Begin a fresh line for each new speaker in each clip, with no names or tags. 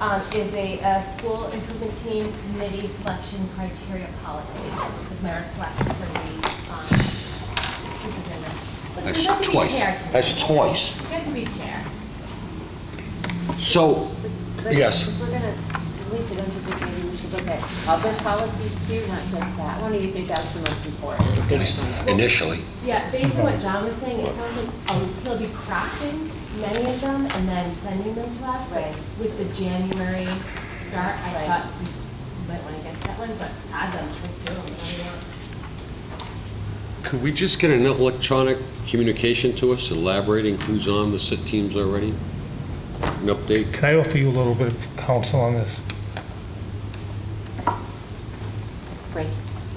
um, is a uh, school improvement team committee selection criteria policy. Is my request for the, um, this is in there. Listen,
That's
you have to be
twice.
chair tonight.
That's twice.
You have to be chair.
So,
But
yes.
If we're gonna delete it, don't you think maybe we should look at other policies too, not just that one, or you think that's the most important?
at least initially,
Yeah, based on what John was saying, it sounds like um, he'll be crafting many of them and then sending them to us. But
Right.
With the January start, I
Right.
thought we might want to get that one, but add them, just do them, whatever you want.
Could we just get an electronic communication to us elaborating who's on the sit teams already? An update?
Can I offer you a little bit of counsel on this?
Right.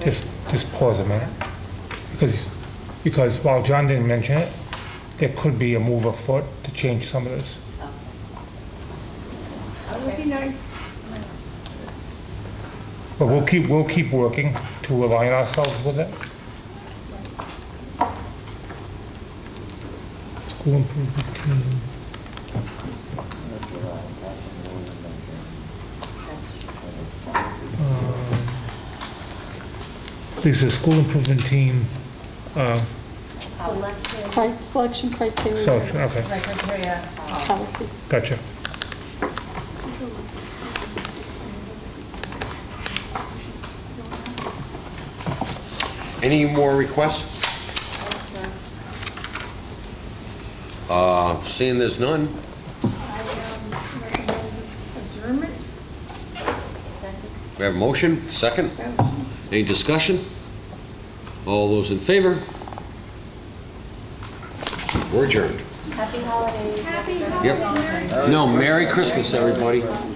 Just, just pause a minute. Because, because while John didn't mention it, there could be a move afoot to change some of this.
That would be nice.
But we'll keep, we'll keep working to align ourselves with it. School improvement team. Um, Lisa, school improvement team, uh,
Selection,
Cri- Selection criteria.
so, uh, okay,
right, criteria, policy.
Policy.
gotcha.
any more requests? Uh, Seeing there's none,
I um, recommend adjournment.
we have a motion, second. Any discussion? All those in favor? We're adjourned.
Happy holidays.
Happy
Yep.
holiday, Merry
No, Merry Christmas, everybody.
Christmas.